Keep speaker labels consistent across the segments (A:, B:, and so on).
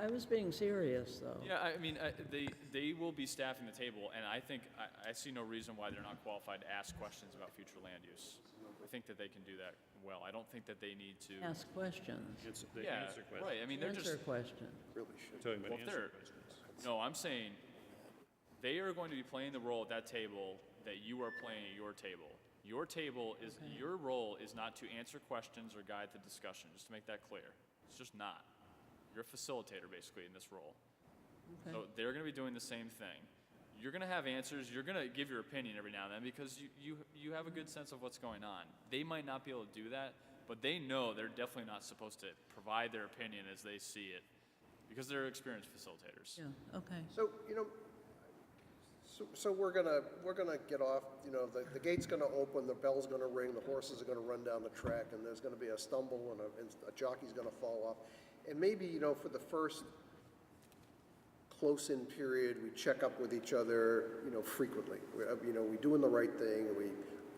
A: I was being serious, though.
B: Yeah, I mean, I- they, they will be staffing the table, and I think, I, I see no reason why they're not qualified to ask questions about future land use. I think that they can do that well. I don't think that they need to.
A: Ask questions,
C: Answer, they
B: Yeah,
C: answer
B: right,
C: questions.
B: I mean, they're just,
A: answer questions.
C: I'm talking
B: Well,
C: about
B: if
C: answer
B: they're-
C: questions.
B: no, I'm saying, they are going to be playing the role at that table that you are playing at your table. Your table is, your role is not to answer questions or guide the discussion, just to make that clear. It's just not. You're a facilitator, basically, in this role.
A: Okay.
B: So they're going to be doing the same thing. You're going to have answers. You're going to give your opinion every now and then because you, you, you have a good sense of what's going on. They might not be able to do that, but they know they're definitely not supposed to provide their opinion as they see it because they're experienced facilitators.
A: Yeah, okay.
D: So, you know, so, so we're gonna, we're gonna get off, you know, the, the gate's gonna open, the bell's gonna ring, the horses are gonna run down the track, and there's gonna be a stumble and a, and a jockey's gonna fall off. And maybe, you know, for the first close-in period, we check up with each other, you know, frequently. We, uh, you know, we doing the right thing, we,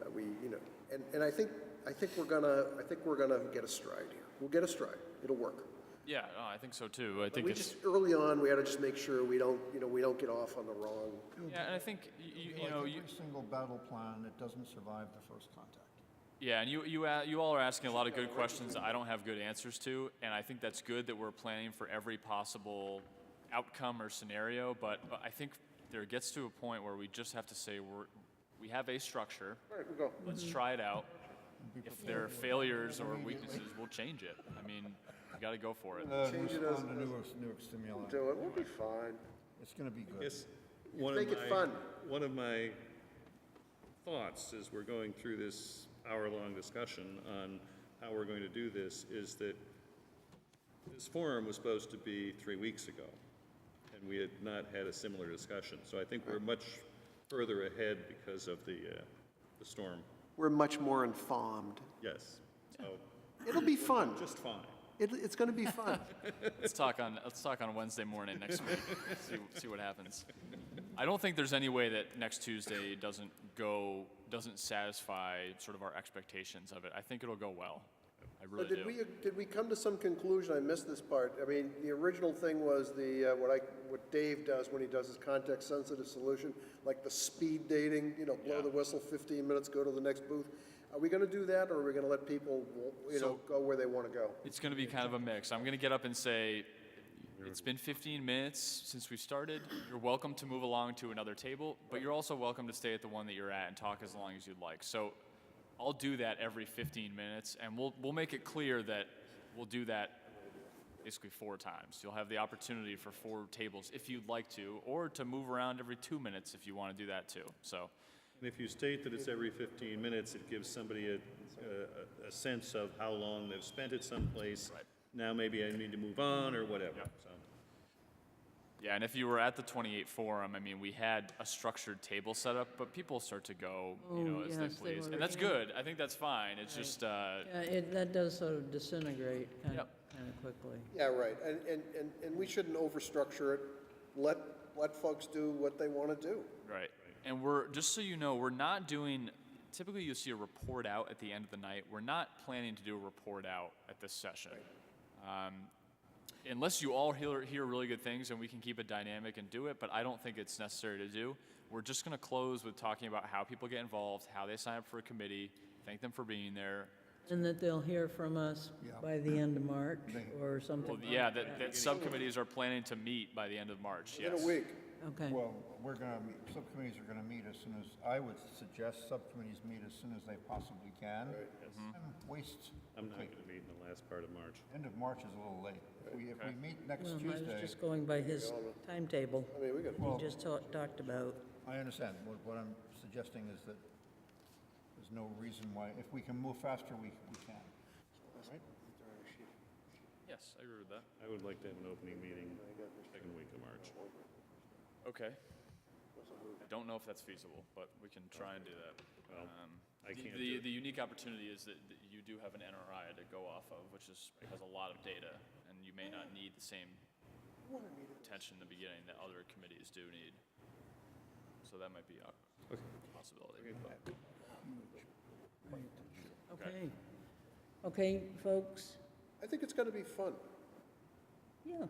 D: uh, we, you know, and, and I think, I think we're gonna, I think we're gonna get a stride here. We'll get a stride. It'll work.
B: Yeah, no, I think so too. I think
D: We
B: it's,
D: just, early on, we had to just make sure we don't, you know, we don't get off on the wrong,
B: yeah, and I think y- y- you, you know,
E: Like
B: you,
E: every single battle plan that doesn't survive the first contact.
B: Yeah, and you, you, a- you all are asking a lot of good questions that I don't have good answers to, and I think that's good that we're planning for every possible outcome or scenario, but, but I think there gets to a point where we just have to say we're, we have a structure.
D: all right, we'll go.
B: Let's try it out. If there are failures or weaknesses, we'll change it. I mean, we got to go for it.
E: Uh,
D: Change it as-
E: respond to new, new stimuli.
D: Do it, we'll be fine.
E: It's gonna be good.
C: Yes, one of
D: Make it
C: my,
D: fun.
C: one of my thoughts as we're going through this hour-long discussion on how we're going to do this is that this forum was supposed to be three weeks ago, and we had not had a similar discussion. So I think we're much further ahead because of the, uh, the storm.
D: We're much more informed.
C: Yes, so
D: It'll be fun.
C: just fine.
D: It, it's going to be fun.
B: Let's talk on, let's talk on Wednesday morning next week, see, see what happens. I don't think there's any way that next Tuesday doesn't go, doesn't satisfy sort of our expectations of it. I think it'll go well. I
D: But
B: really
D: did we,
B: do.
D: did we come to some conclusion? I missed this part. I mean, the original thing was the, uh, what I, what Dave does when he does his context-sensitive solution, like the speed dating, you know, blow the whistle, 15 minutes, go to the next booth. Are we going to do that, or are we going to let people, you know,
B: So-
D: go where they want to go?
B: It's gonna be kind of a mix. I'm gonna get up and say, it's been fifteen minutes since we started. You're welcome to move along to another table, but you're also welcome to stay at the one that you're at and talk as long as you'd like. So I'll do that every fifteen minutes and we'll, we'll make it clear that we'll do that basically four times. You'll have the opportunity for four tables if you'd like to, or to move around every two minutes if you wanna do that too. So,
C: And if you state that it's every 15 minutes, it gives somebody a, a, a sense of how long they've spent at someplace. Now maybe I need to move on or whatever, so.
B: Yeah, and if you were at the 28 forum, I mean, we had a structured table set up, but people start to go, you know,
A: Oh,
B: as
A: yes,
B: they
A: they
B: please,
A: were
B: and that's
A: again.
B: good. I think that's fine. It's just, uh,
A: Yeah, it, that does sort of disintegrate kind of,
B: Yep.
A: kind of quickly.
D: Yeah, right, and, and, and, and we shouldn't overstructure it. Let, let folks do what they want to do.
B: Right. And we're, just so you know, we're not doing, typically you see a report out at the end of the night. We're not planning to do a report out at this session. Um, unless you all hear, hear really good things and we can keep it dynamic and do it, but I don't think it's necessary to do. We're just going to close with talking about how people get involved, how they sign up for a committee, thank them for being there.
A: And that they'll hear from us
E: Yeah.
A: by the end of March or something.
B: Well, yeah, that, that subcommittees are planning to meet by the end of March, yes.
D: In a week.
A: Okay,
E: Well, we're gonna, meet- subcommittees are gonna meet as soon as, I would suggest subcommittees meet as soon as they possibly can. And Waste,
C: I'm not going to meet in the last part of March.
E: end of March is a little late. If we, if we meet next
A: well, I was
E: Tuesday,
A: just going by his timetable
D: I mean, we could,
A: he just ta- talked about.
E: I understand. What, what I'm suggesting is that there's no reason why, if we can move faster, we, we can.
B: Yes, I agree with that.
C: I would like to have an opening meeting second week of March.
B: Okay. I don't know if that's feasible, but we can try and do that. Um,
C: I
B: the-
C: can't do
B: The,
C: it.
B: the unique opportunity is that that you do have an NRI to go off of, which is, has a lot of data, and you may not need the same attention in the beginning that other committees do need. So that might be a possibility.
A: Okay. Okay, folks?
D: I think it's gonna be fun.
A: Yeah,